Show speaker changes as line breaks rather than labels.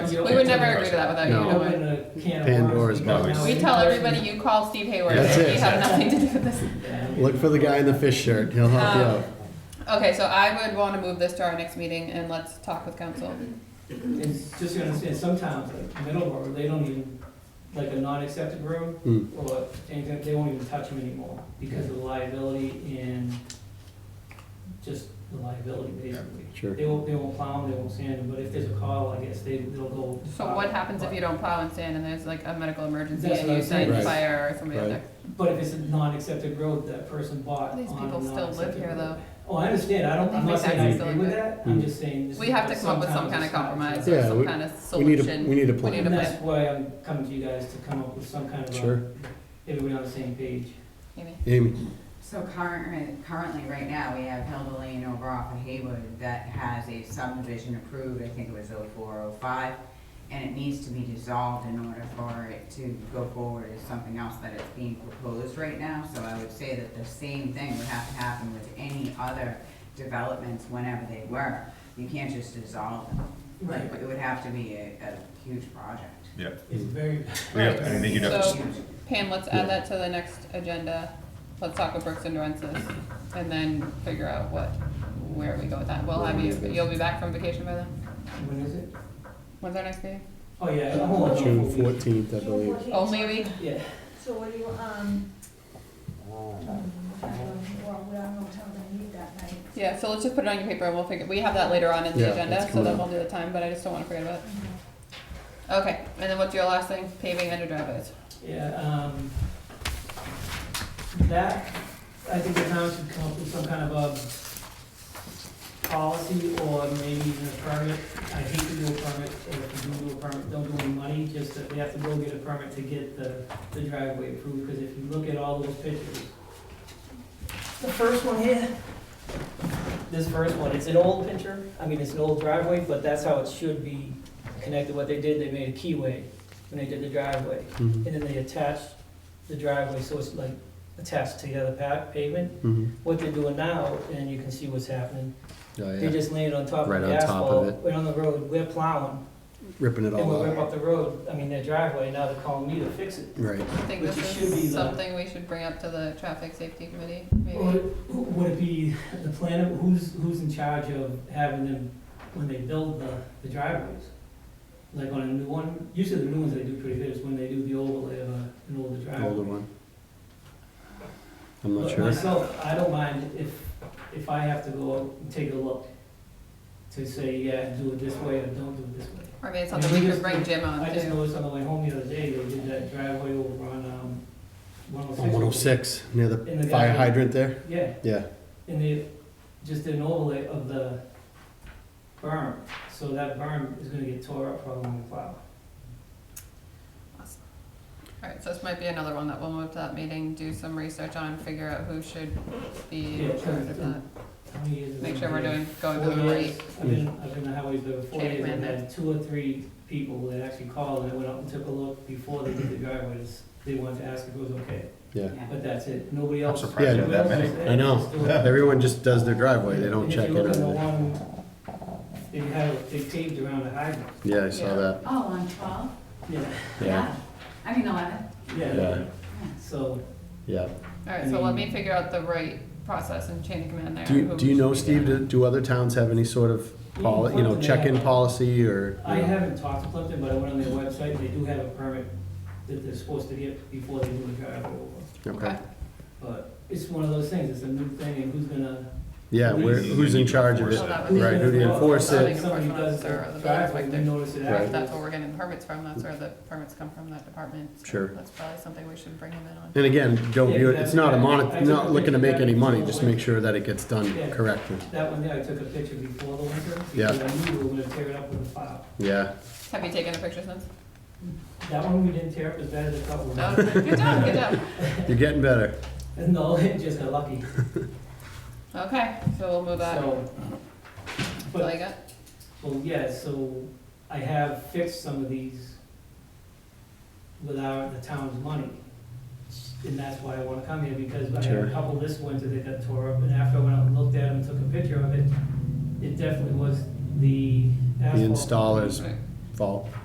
open.
We would never agree to that without you
No.
knowing.
Open a can of
Pandora's
worms because
box.
now
We tell everybody you call Steve Hayward.
That's
and
it.
We have nothing to do with this.
Look for the guy in the fish shirt. He'll help you out.
Okay, so I would want to move this to our next meeting and let's talk with council.
It's just gonna say, some towns, like Middleborough, they don't even, like a non-accepted road,
Mm.
or anything, they won't even touch them anymore because of the liability and just the liability basically.
Sure.
They won't, they won't plow them, they won't sand them, but if there's a call, I guess they, they'll go.
So what happens if you don't plow and sand and there's like a medical emergency
That's
and
what
you
I'm saying.
send
Right.
fire or somebody out
Right.
there?
But if it's a non-accepted road, that person bought on a
These people
non-accepted
still live here
road.
though.
Oh, I understand, I don't, I'm
They
not saying I
still
agree with
live
that, I'm
Mm.
just saying. just
We have to come up with some
sometimes
kind of
it's not
compromise
acceptable.
or
Yeah,
some
we-
kind of
We need a, we
solution.
need a
We need
plan.
a-
And that's why I'm coming to you guys to come up with some kind of
Sure.
a, everybody on the same page.
Amy.
Amy,
So current, currently, right now, we have Hilda Lane over off of Haywood that has a subdivision approved, I think it was 0405, and it needs to be dissolved in order for it to go forward as something else that is being proposed right now. So I would say that the same thing would have to happen with any other developments whenever they were. You can't just dissolve them. Like,
Right.
it would have to be a, a huge project.
Yep.
It's very,
Yeah, I think you'd have
So-
to,
Huge.
Pam, let's add that to the next agenda. Let's talk with Brooks and Durensis and then figure out what, where we go with that. We'll have you, you'll be back from vacation by then?
when is it?
When's our next meeting?
Oh, yeah, a whole lot of.
June fourteenth, I believe.
Only a week?
Yeah,
So what do you, um, um, well, we don't know what time they need that night.
Yeah, so let's just put it on your paper and we'll figure, we have that later on in
Yeah,
the agenda,
that's
so then
coming
we'll do the time, but I just don't wanna forget about it. Okay, and then what's your last thing? Paving under driveways.
yeah, um, that, I think the town should come up with some kind of a policy or maybe even a permit. I hate to do a permit, or if you do do a permit, don't do any money, just that we have to go get a permit to get the, the driveway approved, because if you look at all those pictures,
The first one here?
This first one, it's an old picture, I mean, it's an old driveway, but that's how it should be connected. What they did, they made a keyway when they did the driveway. And
Mhm,
then they attached the driveway, so it's like attached to the other pa- pavement.
mhm.
What they're doing now, and you can see what's happening,
Oh,
they
yeah.
just laid it on top
Right
of the
on top of Oh,
asphalt, right on the road, we're plowing.
Ripping it
They
all
will rip
up.
up the road, I mean, their driveway, now they're calling me to fix it.
Right.
I think
Which
this
should be
is
the-
something we should bring up to the traffic safety committee,
Would
maybe.
it- would it be the planner, who's, who's in charge of having them, when they build the, the driveways? Like on a new one, usually the new ones they do pretty good, is when they do the overlay of a- an older
The older
driveway.
one. I'm not
But
sure.
Myself, I don't mind if, if I have to go out and take a look to say, yeah, do it this way or don't do it this way.
Or maybe it's
I mean,
something
we
we
just-
could bring Jim on
I just
too.
noticed on the way home the other day, they did that driveway over on, um, one oh six.
On one oh six, near
In the
the fire
guy-
hydrant there.
Yeah,
Yeah,
And they just did an overlay of the berm, so that berm is gonna get tore up probably when we plow.
Alright, so this might be another one that we'll move to that meeting, do some research on, figure out who should be in
Yeah,
charge of that.
How many years has it
Make sure
been
we're
here?
doing, going to
Four
the
years.
right.
I've been, I've been on highways there for four
Chain
years, and
amendment.
had two or three people that actually called, and I went out and took a look before they did the driveways. They wanted to ask if it was okay,
yeah.
Yeah.
but that's it, nobody else.
surprised
you
had that
nobody else
many.
said,
I know.
just do it.
Everyone just does their driveway. They don't
And
check
If
in
you look at the
on it.
one, they had, they paved around the hydrant,
Yeah, I saw that.
Oh, on twelve?
yeah,
Yeah,
I mean, eleven.
yeah,
Yeah.
so.
yeah.
Alright, so let me figure out the right process and chain of command there.
Do you,
who
do you know,
should be
Steve,
doing
do, do other towns have any sort of poli, you know, check-in policy or? you
I
know?
haven't talked to Clifton, but I went on their website, they do have a permit that they're supposed to get before they do the driveway over.
it.
Okay.
But it's one of those things, it's a new thing, and who's gonna,
Yeah, where, who's in charge of it?
So Oh, that would be-
Right, who do you enforce
Well,
it?
if Somebody does the driveway, we notice it
If
Right.
that's
afterwards.
where we're getting permits from, that's where the permits come from, that department. So
Sure.
That's probably something we should bring him in on.
And again, don't view it, it's not a mon, not looking to make any money, just make sure that it gets done correctly.
That one there, I took a picture before the winter,
Yeah.
because I knew we were gonna tear it up with a file.
Yeah,
Have you taken a picture since?
That one we didn't tear up as bad as a couple of
No?
them.
Good job, good job.
you're getting better.
No, it just got lucky,
Okay, so we'll move on.
so.
That's
But
all you got?
Well, yeah, so I have fixed some of these without the town's money. And that's why I wanna come here, because I had
Sure.
a couple this winter that got tore up, and after I went out and looked at them and took a picture of it, it definitely was the
The
asphalt.
installer's fault.